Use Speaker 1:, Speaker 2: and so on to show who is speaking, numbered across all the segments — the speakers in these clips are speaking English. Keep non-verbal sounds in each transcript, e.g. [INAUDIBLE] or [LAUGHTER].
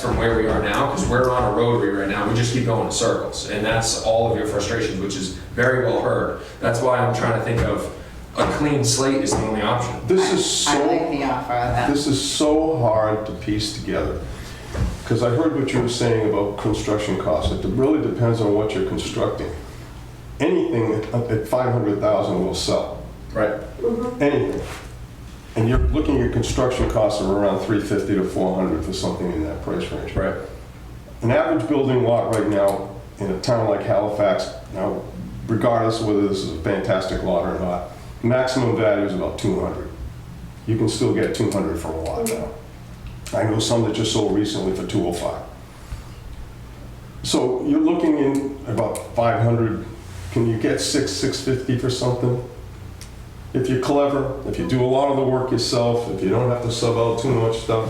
Speaker 1: from where we are now, because we're on a rotary right now, we just keep going in circles. And that's all of your frustrations, which is very well heard. That's why I'm trying to think of, a clean slate is the only option.
Speaker 2: This is
Speaker 3: I like
Speaker 2: so,
Speaker 3: the uh, Um, offer of that.
Speaker 2: this is so hard to piece together. Because I heard what you were saying about construction costs. It really depends on what you're constructing. Anything at at 500,000 will sell. Right. Anything. And you're looking at construction costs of around 350 to 400 for something in that price range.
Speaker 1: Right.
Speaker 2: An average building lot right now in a town like Halifax, now regardless of whether this is a fantastic lot or not, maximum value is about 200. You can still get 200 for a lot now. I know some that just sold recently for 205. So you're looking in about 500, can you get 6, 650 for something? If you're clever, if you do a lot of the work yourself, if you don't have to sub out too much stuff,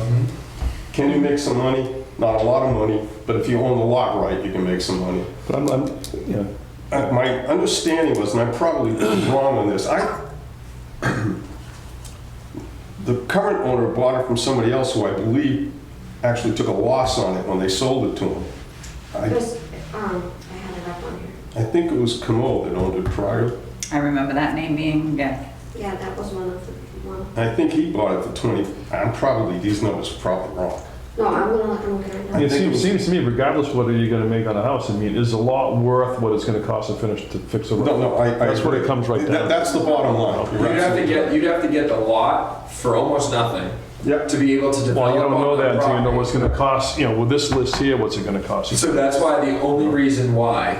Speaker 2: can you make some money? Not a lot of money, but if you own the lot right, you can make some money.
Speaker 4: But I'm, I'm, you know,
Speaker 2: Uh, My understanding was, and I'm probably wrong on this, I, [CLEARS THROAT] the current owner bought it from somebody else who I believe actually took a loss on it when they sold it to him. I,
Speaker 5: There's, um, I have it up on here.
Speaker 2: I think it was Camo that owned it prior.
Speaker 3: I remember that name being, yeah.
Speaker 5: Yeah, that was one of the, one.
Speaker 2: I think he bought it for 20, I'm probably, these numbers are probably wrong.
Speaker 5: No, I'm gonna let him look at it now.
Speaker 2: I
Speaker 4: it
Speaker 2: think it
Speaker 4: seems,
Speaker 2: was-
Speaker 4: seems to me regardless of whether you're gonna make on a house, I mean, is the lot worth what it's gonna cost to finish, to fix a road?
Speaker 2: No, no, I. I-
Speaker 4: That's where it comes right
Speaker 2: That-
Speaker 4: down.
Speaker 2: That's the bottom line.
Speaker 1: You'd
Speaker 2: You're
Speaker 1: have to
Speaker 2: absolutely
Speaker 1: get, you'd have to get the lot for almost nothing
Speaker 2: Yep.
Speaker 1: to be able to develop.
Speaker 4: Well, you don't know
Speaker 1: on
Speaker 4: that until you know
Speaker 1: property.
Speaker 4: what's gonna cost, you know, with this list here, what's it gonna cost? you?
Speaker 1: So that's why the only reason why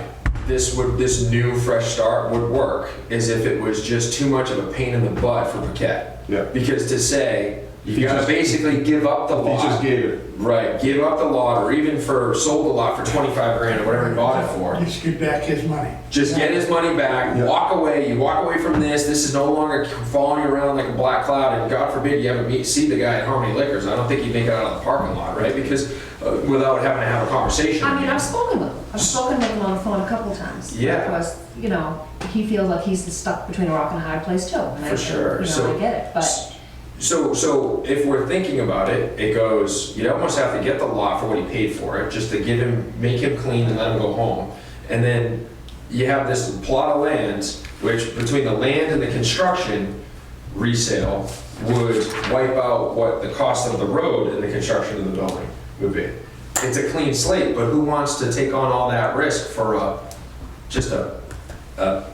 Speaker 1: this would, this new fresh start would work is if it was just too much of a pain in the butt for Paquette.
Speaker 2: Yeah.
Speaker 1: Because to say,
Speaker 2: He
Speaker 1: you gotta
Speaker 2: just-
Speaker 1: basically give up the
Speaker 2: He
Speaker 1: lot.
Speaker 2: just gave it.
Speaker 1: Right, give up the lot or even for, sold the lot for 25 grand or whatever he bought it for.
Speaker 6: Just get back his money.
Speaker 1: Just get his money back,
Speaker 2: Yeah.
Speaker 1: walk away. You walk away from this. This is no longer following you around like a black cloud. And God forbid you ever meet, see the guy at Harmony Liquors. I don't think he'd make it out of the parking lot, right? Because uh, without having to have a conversation.
Speaker 7: I mean, I've spoken with him, I've spoken with him on the phone a couple times.
Speaker 1: Yeah.
Speaker 7: Because, you know, he feels like he's stuck between a rock and a hard place too. and I-
Speaker 1: For sure,
Speaker 7: You
Speaker 1: so-
Speaker 7: know, I get it, but
Speaker 1: So, so if we're thinking about it, it goes, you almost have to get the lot for what he paid for it, just to give him, make him clean and let him go home. And then you have this plot of lands, which between the land and the construction resale would wipe out what the cost of the road and the construction of the building would be. It's a clean slate, but who wants to take on all that risk for a, just a, a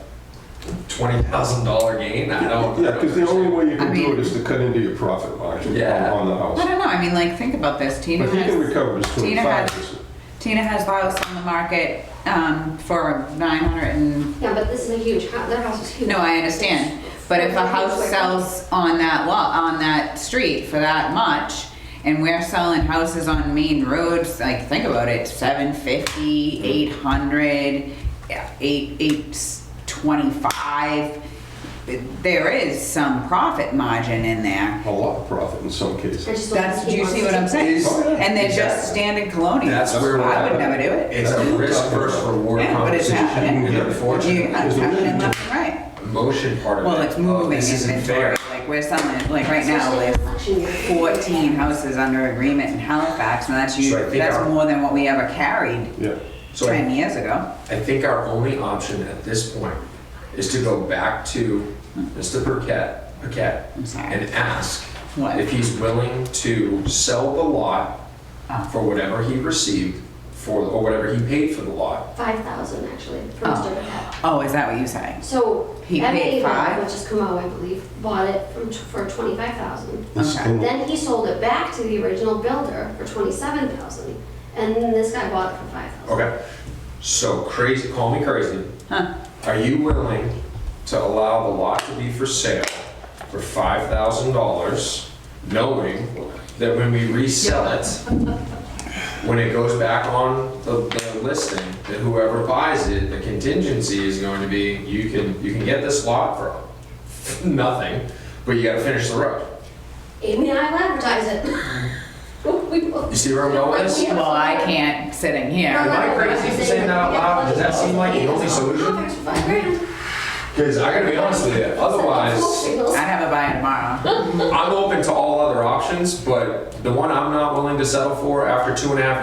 Speaker 1: twenty thousand dollar gain? I don't.
Speaker 2: Yeah, because the only way you
Speaker 3: I
Speaker 2: can do
Speaker 3: mean-
Speaker 2: it is to cut into your profit margin on
Speaker 1: Yeah.
Speaker 2: on the
Speaker 3: I
Speaker 2: house.
Speaker 3: don't know, I mean, like, think about this, Tina
Speaker 2: But he can
Speaker 3: has,
Speaker 2: recover his
Speaker 3: Tina had-
Speaker 2: 25%.
Speaker 3: Tina has lots on the market, um, for nine hundred and,
Speaker 5: Yeah, but this is a huge, hou- that house is huge.
Speaker 3: no, I understand. But if a house sells on that lot, on that street for that much, and we're selling houses on main roads, like, think about it, seven fifty, eight hundred, eight, eight twenty-five, there is some profit margin in there.
Speaker 2: a lot of profit in some
Speaker 5: I
Speaker 2: cases.
Speaker 5: just don't
Speaker 3: That's,
Speaker 5: think
Speaker 3: do
Speaker 5: he
Speaker 3: you see what I'm
Speaker 5: wants to-
Speaker 3: saying?
Speaker 1: Is-
Speaker 3: And they're
Speaker 1: Exactly.
Speaker 3: just standard colonial.
Speaker 1: That's where we're
Speaker 3: I
Speaker 1: at.
Speaker 3: would never do it.
Speaker 1: It's a risk versus reward
Speaker 3: Yeah, but it's
Speaker 1: compensation.
Speaker 3: happening. You,
Speaker 1: Unfortunately,
Speaker 3: I'm
Speaker 2: There's a
Speaker 3: happening
Speaker 2: movement.
Speaker 3: left and right.
Speaker 1: motion part of it.
Speaker 3: Well, it's
Speaker 1: oh,
Speaker 3: moving
Speaker 1: This isn't fair.
Speaker 3: inventory, like we're selling, like right now,
Speaker 5: Especially in
Speaker 3: there's
Speaker 5: election year.
Speaker 3: fourteen houses under agreement in Halifax, and that's
Speaker 1: So I
Speaker 3: you,
Speaker 1: think our-
Speaker 3: that's more than what we ever carried
Speaker 2: Yeah.
Speaker 1: So
Speaker 3: ten
Speaker 1: I
Speaker 3: years ago.
Speaker 1: I think our only option at this point is to go back to Mr. Burkett, Burkett,
Speaker 3: I'm sorry.
Speaker 1: and ask
Speaker 3: What?
Speaker 1: if he's willing to sell the lot
Speaker 3: Oh.
Speaker 1: for whatever he received for, or whatever he paid for the lot.
Speaker 5: Five thousand actually, for
Speaker 3: Oh.
Speaker 5: Mr. Patel.
Speaker 3: Oh, is that what you say?
Speaker 5: So
Speaker 3: He paid
Speaker 5: MA,
Speaker 3: five?
Speaker 5: which is Camo, I believe, bought it from, t- for twenty-five thousand.
Speaker 2: It's-
Speaker 3: Okay.
Speaker 2: and-
Speaker 5: Then he sold it back to the original builder for twenty-seven thousand, and then this guy bought it for five thousand.
Speaker 1: Okay, so crazy, call me crazy.
Speaker 3: Huh.
Speaker 1: Are you willing to allow the lot to be for sale for five thousand dollars, knowing that when we resell it, when it goes back on the, the listing, that whoever buys it, the contingency is going to be, you can, you can get this lot for nothing, but you gotta finish the road.
Speaker 5: Amy and I will advertise it. [LAUGHS] We will.
Speaker 1: You see where I'm going with this?
Speaker 3: Well, I can't sitting here.
Speaker 1: Am I crazy for saying that out loud? Does that seem like the only solution?
Speaker 5: Five grand.
Speaker 1: Because I gotta be honest with you, otherwise,
Speaker 3: I'd have a buy tomorrow.
Speaker 1: I'm open to all other options, but the one I'm not willing to settle for after two and a half